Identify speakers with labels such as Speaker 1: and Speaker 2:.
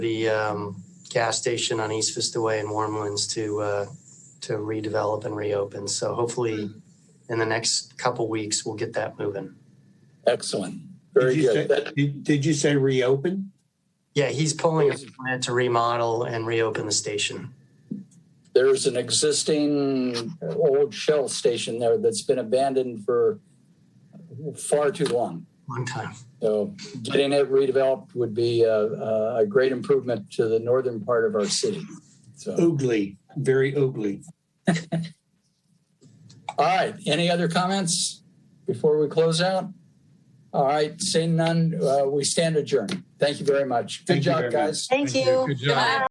Speaker 1: the um, gas station on East Vista Way in Warmlands to uh, to redevelop and reopen. So hopefully, in the next couple weeks, we'll get that moving.
Speaker 2: Excellent. Very
Speaker 3: Did you
Speaker 2: good.
Speaker 3: say-
Speaker 2: That-
Speaker 3: Did did you say reopen?
Speaker 1: Yeah, he's pulling a plan to remodel and reopen the station.
Speaker 2: There's an existing old Shell station there that's been abandoned for far too long.
Speaker 1: Long time.
Speaker 2: So getting it redeveloped would be a, a a great improvement to the northern part of our city. So,
Speaker 3: Oogly, very oogly.
Speaker 2: all right. Any other comments before we close out? All right. Seeing none, uh, we stand adjourned. Thank you very much. Good
Speaker 3: Thank you
Speaker 2: job,
Speaker 3: very much.
Speaker 2: guys.
Speaker 4: Thank
Speaker 5: Thank you.
Speaker 4: you.
Speaker 5: Good
Speaker 4: Good
Speaker 5: job.
Speaker 4: night.